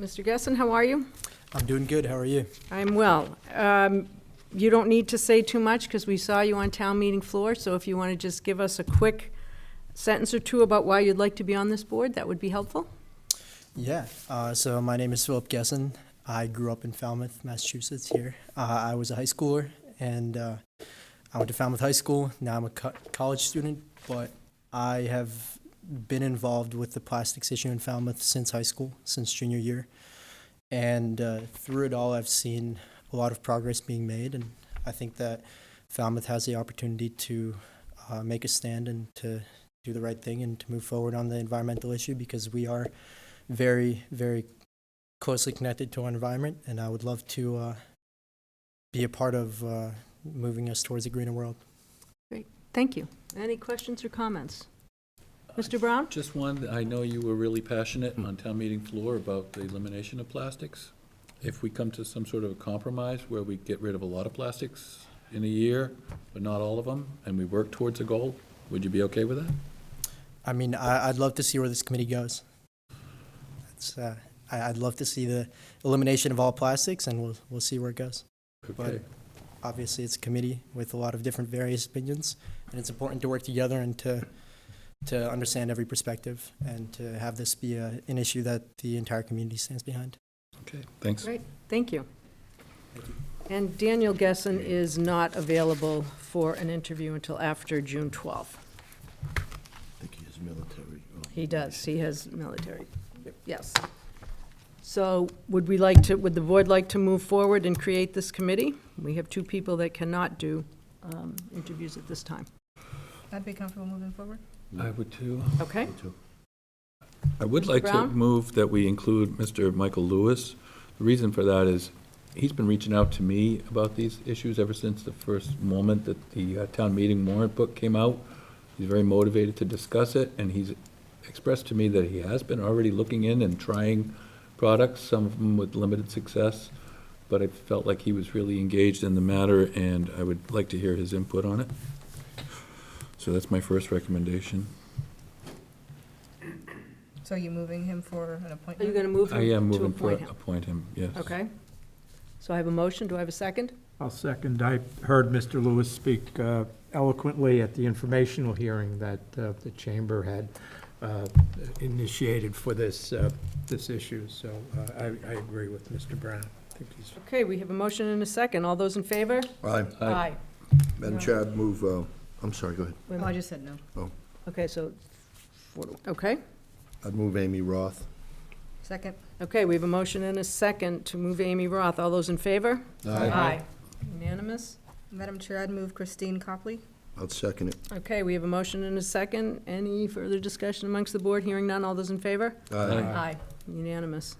Mr. Gessen, how are you? I'm doing good. How are you? I'm well. Um, You don't need to say too much, because we saw you on town meeting floor, so if you want to just give us a quick sentence or two about why you'd like to be on this board, that would be helpful. Yeah. Uh, so my name is Philip Gesson. I grew up in Falmouth, Massachusetts. Here, uh, I was a high schooler, and uh, I went to Falmouth High School. Now I'm a co- college student, but I have been involved with the plastics issue in Falmouth since high school, since junior year, and uh, through it all, I've seen a lot of progress being made, and I think that Falmouth has the opportunity to uh, make a stand and to do the right thing and to move forward on the environmental issue because we are very, very closely connected to our environment, and I would love to uh, be a part of uh, moving us towards a greener world. Thank you. Any questions or comments? Mr. Brown? Just one, I know you were really passionate on town meeting floor about the elimination of plastics. If we come to some sort of a compromise where we get rid of a lot of plastics in a year, but not all of them, and we work towards a goal, would you be okay with that? I mean, I, I'd love to see where this committee goes. It's, uh, I, I'd love to see the elimination of all plastics, and we'll, we'll see where it goes. Okay. Obviously, it's a committee with a lot of different various opinions, and it's important to work together and to, to understand every perspective and to have this be a, an issue that the entire community stands behind. Okay, thanks. Great, thank you. And Daniel Gessen is not available for an interview until after June 12th. I think he is military. Oh, He does, he has military, yes. So would we like to, would the board like to move forward and create this committee? We have two people that cannot do um, interviews at this time, I'd be comfortable moving forward. I would too. okay? me too. I would like to Brown? move that we include Mr. Michael Lewis. The reason for that is, he's been reaching out to me about these issues ever since the first moment that the uh, town meeting warrant book came out. He's very motivated to discuss it, and he's expressed to me that he has been already looking in and trying products, some of them with limited success, but I felt like he was really engaged in the matter, and I would like to hear his input on it. So that's my first recommendation. So you moving him for an Are you appointment? going to move I him am to moving for, appoint him? appoint him, yes. Okay. So I have a motion, do I have a second? I'll second. I heard Mr. Lewis speak uh, eloquently at the informational hearing that uh, the chamber had uh, initiated for this, uh, this issue, so uh, I, I agree with Mr. Brown. I think he's Okay, we have a motion and a second, all those in favor? Aye. Aye. Madam Chair, I'd move, uh, I'm sorry, go ahead. Wait a Oh, I minute. just said no. Okay, so, okay, I'd move Amy Roth. Second? okay, we have a motion and a second to move Amy Roth, all those in favor? Unanimous? Madam Chair, I'd move Christine Copley. I'd second it. Okay, we have a motion and a second. Any further discussion amongst the board? Hearing none, all those in favor? Aye. Aye. Unanimous.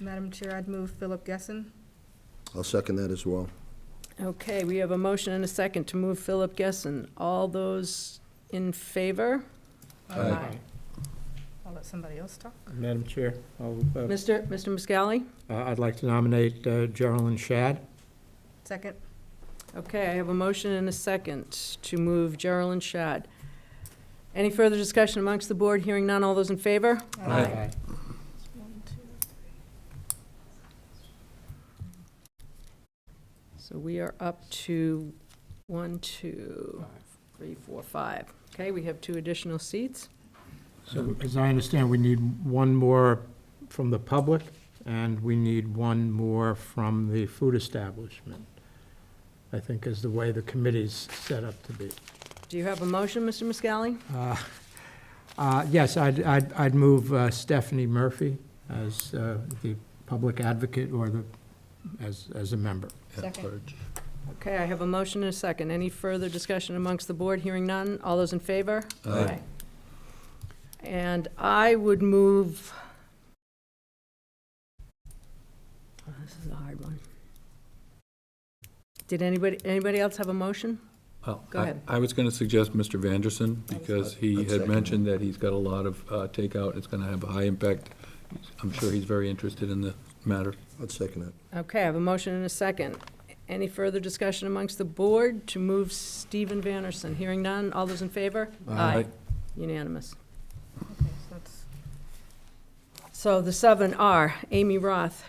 Madam Chair, I'd move Philip Gessen. I'll second that as well. Okay, we have a motion and a second to move Philip Gessen. All those in favor? Aye. I'll let somebody else talk. Madam Chair, I'll, uh, Mr. Mr. Muscally? I'd like to nominate uh, Geraldine Shad. Second? Okay, I have a motion and a second to move Geraldine Shad. Any further discussion amongst the board? Hearing none, all those in favor? Aye. Uh, One, two. So we are up to one, two, three, four, five. Okay, we have two additional seats. So as I understand, we need one more from the public, and we need one more from the food establishment, I think is the way the committee's set up to be. Do you have a motion, Mr. Muscally? Uh, uh, Yes, I'd, I'd I'd move uh, Stephanie Murphy as uh, the public advocate or the, as, as a member. uh, Second. Okay, I have a motion and a second. Any further discussion amongst the board? Hearing none. All those in favor? Aye. And I would move... Oh, This is a hard one. Did anybody, anybody else have a motion? Well, Go I- ahead. I was going to suggest Mr. Vanderson, because he I'd had second mentioned that he's got a lot of uh, takeout, it's going to have a high impact. I'm sure he's very interested in the matter. I'd second it. Okay, I have a motion and a second. Any further discussion amongst the board to move Stephen Vanderson? Hearing none. All those in favor? Unanimous. Okay, so that's So the seven are Amy Roth,